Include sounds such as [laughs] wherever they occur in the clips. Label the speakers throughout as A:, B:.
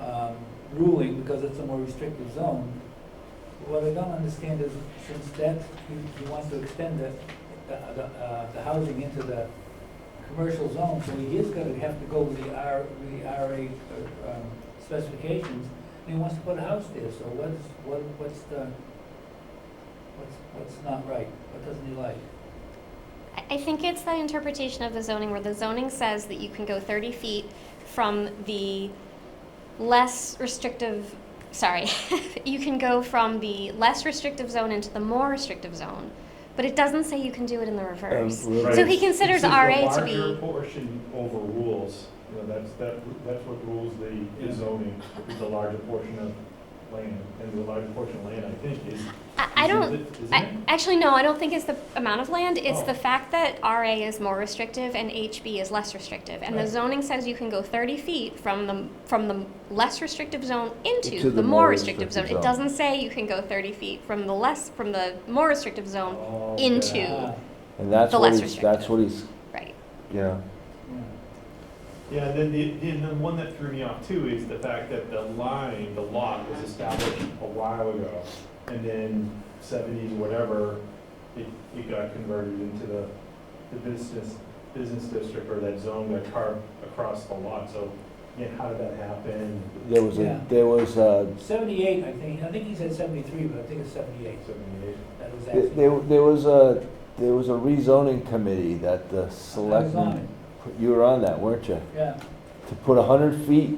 A: um, ruling because it's a more restrictive zone. What I don't understand is since that, he, he wants to extend the, the, the, uh, the housing into the commercial zone, so he is gonna have to go with the R, with the RA uh, um, specifications, and he wants to put a house there, so what's, what, what's the, what's, what's not right? What doesn't he like?
B: I I think it's the interpretation of the zoning where the zoning says that you can go 30 feet from the less restrictive, sorry, [laughs] you can go from the less restrictive zone into the more restrictive zone, but it doesn't say you can do it in the reverse.
C: Um,
B: So
C: right.
B: he considers
D: Since
B: RA to
D: The larger
B: be,
D: portion overrules, you know, that's, that, that's what rules the-
A: Yeah.
D: the zoning, is the larger portion of land, and the larger portion of land, I think, is.
B: I, I
D: is
B: don't,
D: it- Isn't
B: I,
D: it?
B: actually, no, I don't think it's the amount of land, it's
D: Oh.
B: the fact that RA is more restrictive and HB is less restrictive. And the
A: Right.
B: zoning says you can go thirty feet from the, from the less restrictive zone into
C: Into
B: the more restrictive zone. It
C: zone.
B: doesn't say you can go thirty feet from the less, from the more restrictive zone,
D: Oh,
B: into-
D: yeah.
A: Ah,
C: And that's
B: The
C: what
B: less
C: he's, that's
B: restrictive.
C: what he's,
B: right?
C: yeah,
A: yeah.
D: Yeah, and then the, the- and then one that threw me off too is the fact that the line, the lot was established a while ago. And then seventies, whatever, it, it got converted into the, the business, business district or that zone that carved across the lot. So, yeah, how did that happen?
C: there was
A: Yeah.
C: a, there was a,
A: Seventy-eight, I think, I think he said seventy-three, but I think it's seventy-eight,
D: Seventy-eight.
A: that was
C: there,
A: actually.
C: there was a, there was a rezoning committee that the
A: I was on
C: selectmen, you were on that, weren't you?
A: it, Yeah,
C: To put a hundred feet,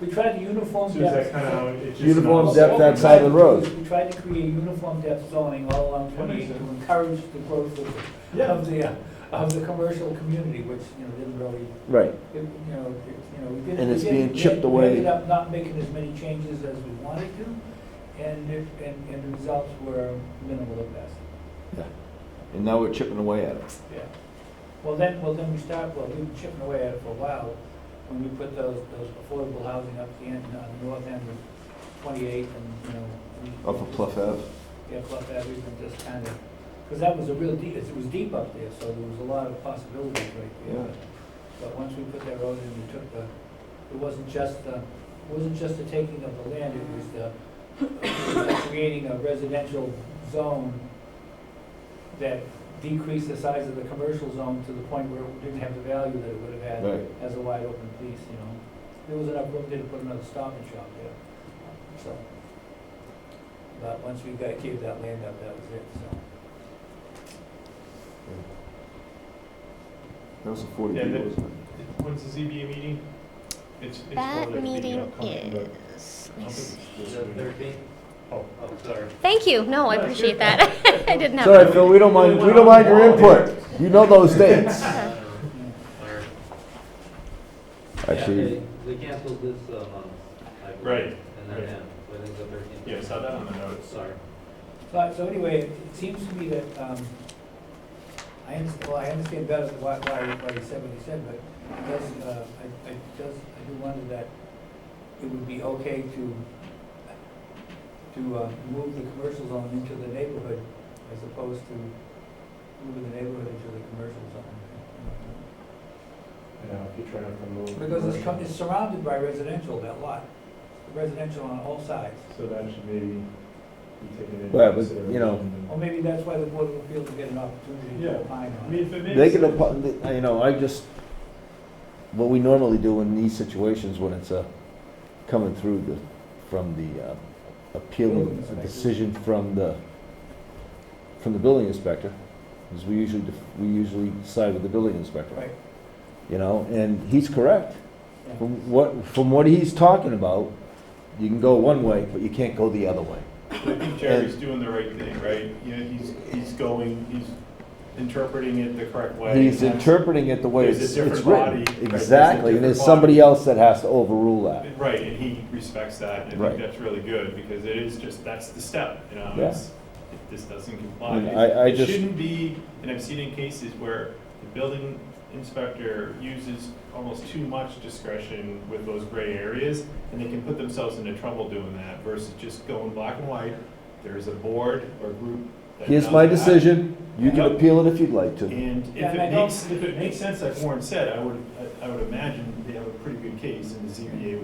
A: we tried to uniform
D: So
A: depth.
D: is that kind of how it just?
C: Uniform
A: Well,
C: depth
A: what we
C: outside
A: tried
C: the
A: to do
C: road.
A: is We tried to create uniform depth zoning all along
D: That makes
A: twenty-eight to
D: sense.
A: encourage the growth of,
D: Yeah,
A: of the, uh, of the commercial community, which, you know, didn't really,
C: right,
A: it- you know, it- you know, we did.
C: And
A: we
C: it's
A: did-
C: being
A: we
C: chipped
A: ended-
C: away.
A: We ended up not making as many changes as we wanted to, and it, and, and the results were minimal at best.
C: and now we're chipping away at it.
A: Yeah. Well, then, well, then we start, well, we've been chipping away at it for a while, when we put those, those affordable housing up the end, on the north end of twenty-eighth and, you know. we-
C: Off of Pluff Ave.
A: Yeah, Pluff Ave, we've been just kind of, because that was a real deep, it was deep up there, so there was a lot of possibilities right there. But once we put that road in, we took the, it wasn't just the, it wasn't just the taking of the land, it was the, it was creating a residential zone that decreased the size of the commercial zone to the point where it didn't have the value that it would have had
C: Right.
A: as a wide open piece, you know? There was enough room there to put another stop and shop there, so. But once we got, gave that land up, that was it, so.
C: That was a forty
D: Yeah,
C: feet,
D: that-
C: wasn't
D: when's the ZBA meeting? It's, it's.
B: That
D: probably the
B: meeting
D: upcoming, but
B: is,
D: I don't think it's this week.
E: Thirteen?
D: Oh,
E: Oh, sorry.
B: thank you, no, I
D: No, it's
B: appreciate
D: good.
B: that, [laughs] I didn't
C: it?
B: have.
C: Sorry, Phil, we don't mind, we don't mind your input, you know those dates.
E: Uh, or- Yeah,
C: Actually,
E: They they canceled this uh, month, I believe.
D: Right,
E: And then,
D: right.
E: yeah, within the thirteen.
D: Yeah, I saw that on the notes.
E: Sorry.
A: So, so anyway, it seems to me that, um, I understand, well, I understand better why, why, why he said what he said, but it does, uh, I, I does, I do wonder that it would be okay to, to, uh, move the commercial zone into the neighborhood as opposed to moving the neighborhood into the commercial zone.
D: You know, if you're trying to promote.
A: Because it's, co-
D: commercial.
A: it's surrounded by residential, that lot, residential on all sides.
D: So that should maybe be taken into
C: Well, but,
D: consideration.
C: you know-
A: Or maybe that's why the Board of Appeals will get an opportunity
D: Yeah.
A: to opine
D: I
A: on
D: mean,
A: it.
D: if it
C: they
D: makes
C: can,
D: sense.
C: apo- you know, I just, what we normally do in these situations when it's a, coming through the, from the uh, appealing, a decision from the, from the building inspector, is we usually, def- we usually side with the building inspector.
A: Right.
C: You know, and he's correct.
A: Yeah.
C: From what, from what he's talking about, you can go one way, but you can't go the other way.
D: I think Jerry's doing the right thing, right? You know, he's, he's going, he's interpreting it the correct way.
C: He's
D: and that's-
C: interpreting it the way
D: There's a
C: it's
D: different
C: it's written.
D: body, right? There's a
C: Exactly, and there's
D: different
C: somebody
D: body.
C: else that has to overrule that.
D: Right, and he respects that, and I
C: Right.
D: think that's really good, because it is just, that's the step, you know,
C: Yeah. Mm-hmm.
D: it's, if this doesn't comply.
C: And
D: it-
C: I- I
D: It
C: just-
D: shouldn't be, and I've seen in cases where the building inspector uses almost too much discretion with those gray areas, and they can put themselves into trouble doing that, versus just going black and white, there's a board or group that
C: Here's
D: does
C: my
D: that.
C: decision, you can
D: Yep.
C: appeal it if you'd like to.
D: And if
A: Yeah, and I
D: it
A: don't-
D: makes, if it makes sense, like Warren said, I would, I I would imagine they have a pretty good case, and the ZBA would